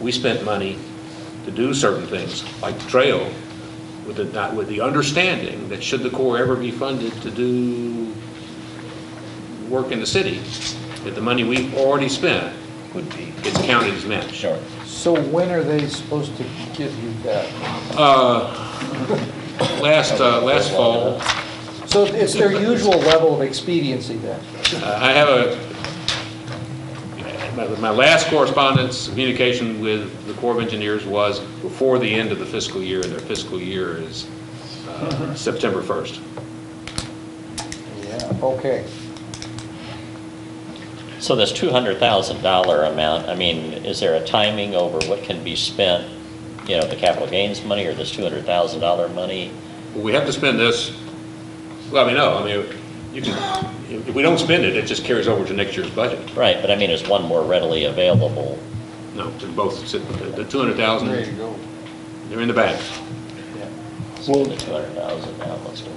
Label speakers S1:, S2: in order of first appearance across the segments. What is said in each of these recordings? S1: we spent money to do certain things, like the trail, with the, not- with the understanding that should the Corps ever be funded to do work in the city, that the money we already spent
S2: would be.
S1: gets counted as match.
S2: Sure.
S3: So when are they supposed to give you that?
S1: Last, uh, last fall,
S3: So it's their usual level of expediency then?
S1: Uh, I have a, my- my last correspondence, communication with the Corps of Engineers was before the end of the fiscal year, and their fiscal year is uh, September 1st.
S3: Yeah. Okay.
S2: So this $200,000 amount, I mean, is there a timing over what can be spent? You know, the capital gains money or this $200,000 money?
S1: Well, We have to spend this, well, I mean, no, I mean, you can, if if we don't spend it, it just carries over to next year's budget.
S2: Right, but I mean, is one more readily available?
S1: No, they're both, sit- the 200,000,
S3: go.
S1: they're in the bank.
S2: So the 200,000 now, let's go.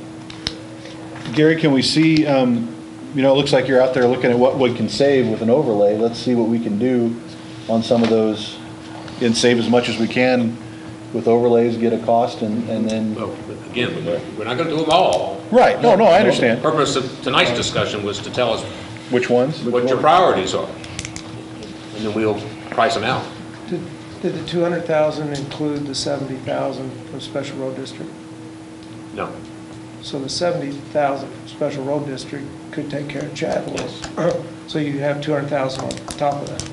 S4: Gary, can we see, um, you know, it looks like you're out there looking at what we can save with an overlay. Let's see what we can do on some of those and save as much as we can with overlays, get a cost and, and then,
S1: Well, but again, we're we're not going to do them all.
S4: right, no, no, I
S1: The
S4: understand.
S1: purpose of tonight's discussion was to tell us
S4: Which ones?
S1: what your priorities are. And then we'll price them out.
S5: Did did the 200,000 include the 70,000 for special road district?
S1: No.
S5: So the 70,000 for special road district could take care of Chadwell's. So you have 200,000 on top of that.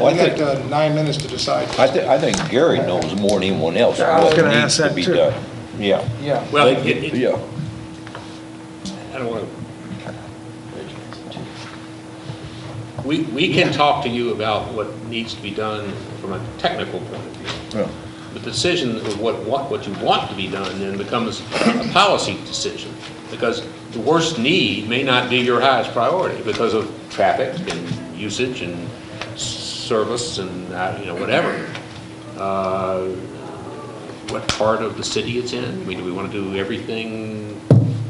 S6: We got uh, nine minutes to decide.
S7: I thi, I think Gary knows more than anyone else
S5: I was
S7: what
S5: gonna
S7: needs
S5: ask
S7: to
S5: that
S7: be
S5: too.
S7: done. Yeah,
S3: Yeah.
S1: Well, it- it-
S7: yeah.
S1: I don't want to. We, we can talk to you about what needs to be done from a technical point of view.
S4: Yeah.
S1: The decision of what, what, what you want to be done then becomes a policy decision. Because the worst need may not be your highest priority because of traffic and usage and s- service and, uh, you know, whatever. Uh, what part of the city it's in? I mean, do we want to do everything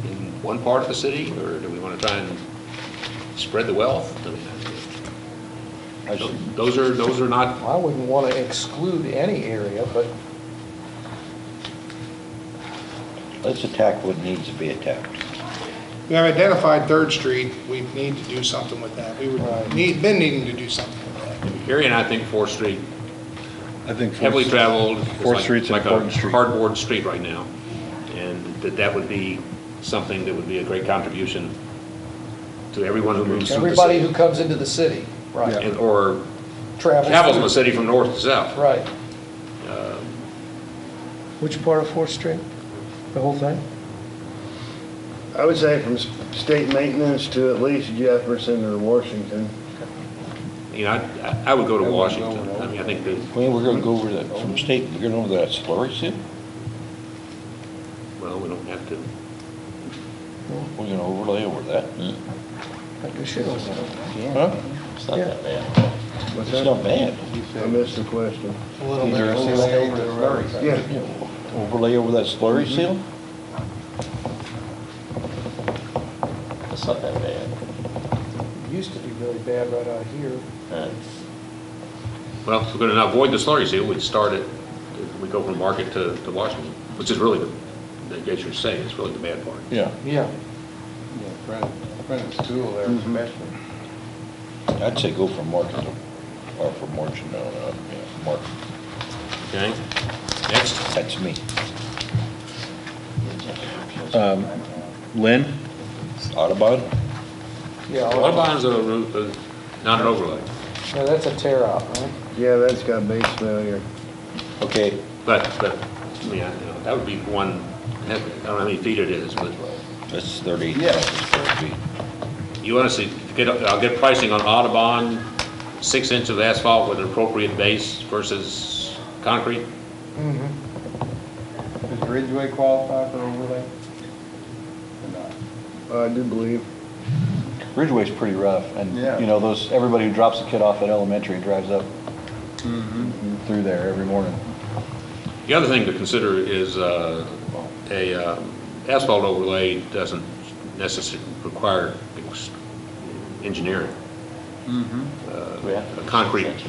S1: in one part of the city, or do we want to try and spread the wealth? I mean,
S7: I see.
S1: Those are, those are not,
S3: I wouldn't want to exclude any area, but
S7: Let's attack what needs to be attacked.
S6: We have identified Third Street, we need to do something with that. We were, need, been needing to do something with that.
S1: Gary and I think Fourth Street,
S4: I think.
S1: heavily traveled. is
S4: Fourth
S1: like-
S4: Street's an important street.
S1: Like a hardboard street right now, and that that would be something that would be a great contribution to everyone who moves through the
S3: everybody who
S1: city.
S3: comes into the city, right,
S1: And- Or
S3: travels. Um,
S1: travels from the city from north to south.
S3: Right.
S5: Which part of Fourth Street? The whole thing?
S8: I would say from s- state maintenance to at least Jefferson or Washington.
S1: You know, I- I, I would go to Washington. I mean, I think that,
S7: I mean, we're gonna go over that, from state, we're gonna go over that slurry sim?
S1: well, we don't have to,
S7: We're gonna overlay over that?
S5: Like I should have.
S7: Huh?
S2: It's not
S5: Yeah.
S2: that bad.
S8: What's
S7: It's
S8: that?
S7: not bad.
S8: I missed the question.
S3: A little bit
S7: Either
S3: overlay over the road.
S8: Yeah,
S7: Yeah, Overlay over that slurry seal?
S2: Mm-hmm. It's not that bad.
S3: It used to be really bad right out here.
S2: Uh,
S1: well, if we're going to avoid the slurry seal, we'd start it, we go from Market to, to Washington, which is really the, as you're saying, it's really the bad part.
S7: Yeah,
S3: Yeah.
S7: I'd say go from Market, to-
S4: uh,
S7: or from Margin, no, no, yeah, Market,
S1: Okay? Next.
S7: that's me.
S4: Um, Lynn,
S7: Audubon?
S3: Yeah, all-
S1: Audubon's a, route, uh, not an overlay,
S3: no, that's a tear out, right?
S8: yeah, that's got base failure.
S7: Okay,
S1: but, but, yeah, you know, that would be one, I don't know how many feet it is, but
S7: that's thirty square feet.
S1: you want to see, get, I'll get pricing on Audubon, six inches of asphalt with an appropriate base versus concrete.
S9: Does Ridgeway qualify for overlay? Or not?
S8: I do believe.
S4: Ridgeway's pretty rough and,
S9: Yeah.
S4: you know, those, everybody who drops a kid off at elementary drives up through there every morning.
S1: The other thing to consider is, uh, a um, asphalt overlay doesn't necessarily require ex- engineering. uh, concrete